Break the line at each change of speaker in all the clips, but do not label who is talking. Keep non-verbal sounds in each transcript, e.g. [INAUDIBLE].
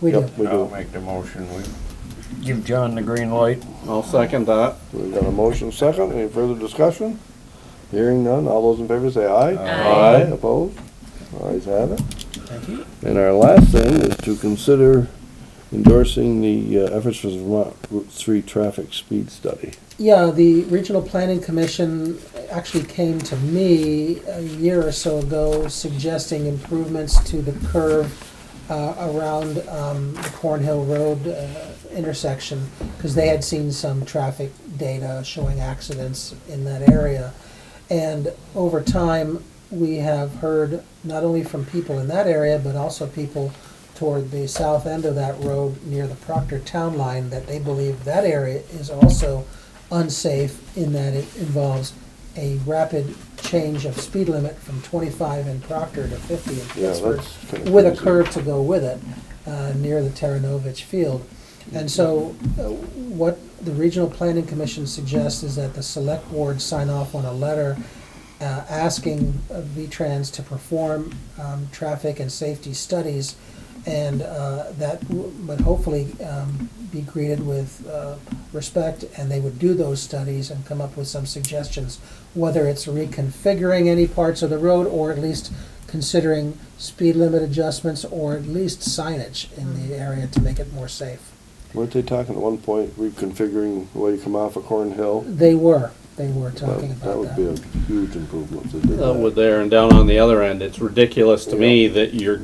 We do.
Yep, we
I'll
do.
make the motion. We
Give John the green light.
I'll second that.
We've got a motion second. Any further discussion? Hearing none. All those in favor say aye.
Aye.
Opposed? Ayes have it.
Thank you.
And our last thing is to consider endorsing the uh, efforts for Vermont Route Three Traffic Speed Study.
Yeah, the Regional Planning Commission actually came to me a year or so ago suggesting improvements to the curve uh, around um, the Cornhill Road uh, intersection, because they had seen some traffic data showing accidents in that area. And over time, we have heard not only from people in that area, but also people toward the south end of that road near the Proctor Town Line, that they believe that area is also unsafe in that it involves a rapid change of speed limit from 25 in Proctor to 50 in
Yeah,
Pittsburgh
that's kind of
with a
crazy.
curve to go with it, uh, near the Taranovich Field. And so, uh, what the Regional Planning Commission suggests is that the Select Board sign off on a letter uh, asking uh, V-Trans to perform um, traffic and safety studies, and uh, that w- would hopefully um, be greeted with uh, respect, and they would do those studies and come up with some suggestions, whether it's reconfiguring any parts of the road, or at least considering speed limit adjustments, or at least signage in the area to make it more safe.
Weren't they talking at one point reconfiguring the way you come off of Cornhill?
They were, they were talking
That that
about
would be
that.
a huge improvement if they did
Uh, with
that.
there and down on the other end, it's ridiculous to me that you're,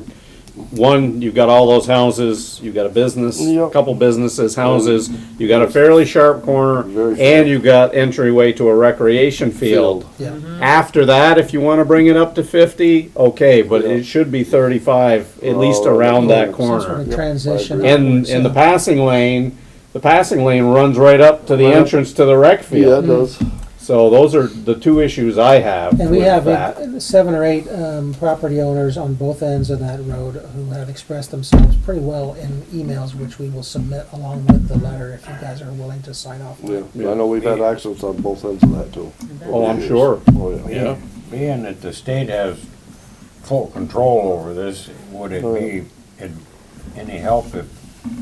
one, you've got all those houses, you've got a business,
Yep.
couple businesses, houses, you got a fairly sharp corner,
Very sharp.
and you got entryway to a recreation field.
Yeah,
After that, if you wanna bring it up to fifty, okay, but
Yeah.
it should be thirty-five, at least
Oh,
around that
that's
some sort
corner.
of
Yep, I
transition.
agree.
And, and the passing lane, the passing lane runs right up to the
Right up.
entrance to the Mm-hmm. rec
Yeah, it
field.
does.
So those are the two issues I have
And we
with
have
that.
uh, seven or eight um, property owners on both ends of that road who have expressed themselves pretty well in emails, which we will submit along with the letter if you guys are willing to sign off.
Yeah, I know we've had accidents on both ends of that too.
Oh, I'm sure.
Oh, yeah.
Yeah.
Being that the state has full control over this, would it be in- any help if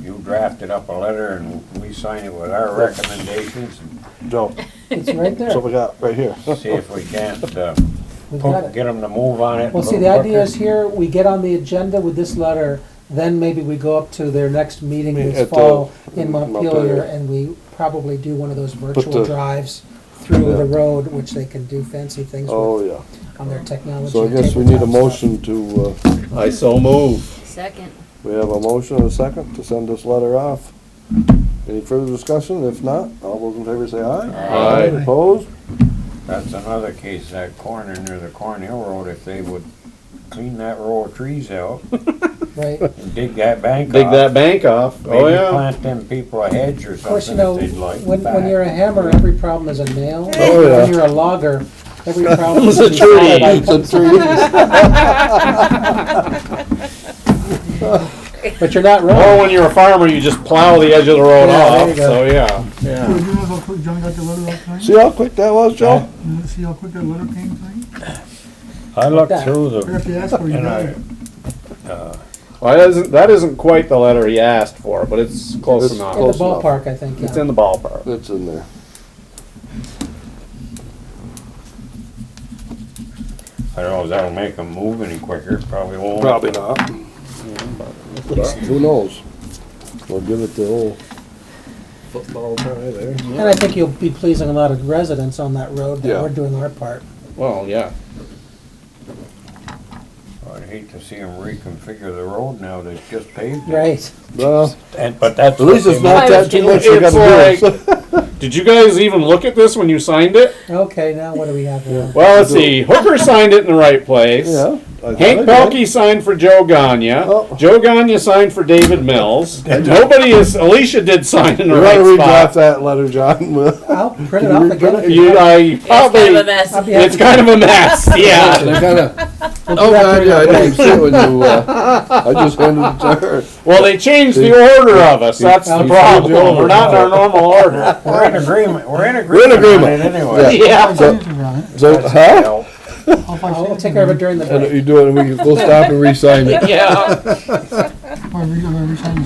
you drafted up a letter and we sign it with our recommendations and
Joe,
It's right there.
so we got
[LAUGHS]
right here.
see if we can't, uh,
We've got
poke-
it.
get them to move on it? a
Well, see, the
little
idea is
quicker?
here, we get on the agenda with this letter, then maybe we go up to their next meeting
Yeah,
this
at the-
fall in
Montpelier.
Montpelier, and we probably do one of those virtual
the-
drives through
Yeah.
the road, which they can do fancy things
Oh,
with
yeah.
on their technology.
So I guess we need a
tabletop stuff.
motion to, uh,
I so move.
Second.
we have a motion and a second to send this letter off. Any further discussion? If not, all those in favor say aye.
Aye.
Opposed?
That's another case, that corner near the Cornhill Road, if they would clean that row of trees out
[LAUGHS]
Right, of
and dig that bank
Dig
off,
that bank off. Oh,
Maybe
yeah.
plant them people a hedge or
course, you
something
know,
if they'd like
when, when
back.
you're a hammer, every problem is a nail.
Oh, yeah.
When you're a logger,
[LAUGHS]
every problem is
It's a
a
tree.
tree.
It's a tree.
[LAUGHS]
[LAUGHS]
But you're not
Oh,
Or
wrong.
when you're a farmer, you just plow the edge of the
Yeah,
road
there
off.
you go.
So, yeah.
Would you have a quick, John got the letter up there?
See how quick that was, Joe?
You wanna See how quick that letter came thing?
I looked
that.
through
You have
the,
to ask for it, you
and
got
I,
it.
Well, that isn't, that isn't quite the letter he asked for, but it's close
It's
enough.
In the
close enough.
ballpark, I think,
It's
yeah.
in the ballpark.
It's in there.
I don't know if that'll make them move any quicker, probably won't.
not. Who knows? We'll give it the old football try there.
And I think you'll be pleasing a lot of residents on that road that
Yeah.
we're doing our part.
Well, yeah.
I'd hate to see them reconfigure the road now they just paved it.
Right.
Well,
And, but that's.
at least
what
it's
they
not
I
that
was
too
gonna-
much you gotta
It's
do. [LAUGHS]
Did you guys even look at this when you signed it?
Okay, now what do we have here?
Well, let's see. Hooker signed it in the right place.
Yeah. I thought
Hank
I did.
Pelkey signed for Joe Gagne.
Oh.
Joe Gagne signed for David Mills. Nobody is. Alicia did sign in the
You
right
wanna redraft
spot.
that letter, John? [LAUGHS] Well,
I'll print it off again. if
You,
want.
I
It's
probably.
kind of a mess.
I'll be happy
It's kind of a mess, yeah.
I kinda-
We'll do
Oh,
that
God,
during
yeah, I
the
didn't
break.
even see it when you, uh, I just handed
[LAUGHS]
it to her.
Well, they changed the order of us, that's the
They
problem, we're not in our normal order.
We're in agreement, we're in
We're in
agreement on
agreement.
it anyway.
So-
Yeah, [LAUGHS]
I'll see it around it.
So, huh?
Well,
I'll find
I'll
it.
I'll take care of it during the break.
And you do it, and we can, we'll stop and re-sign it.
yeah.
I'll re- I'll re-sign it.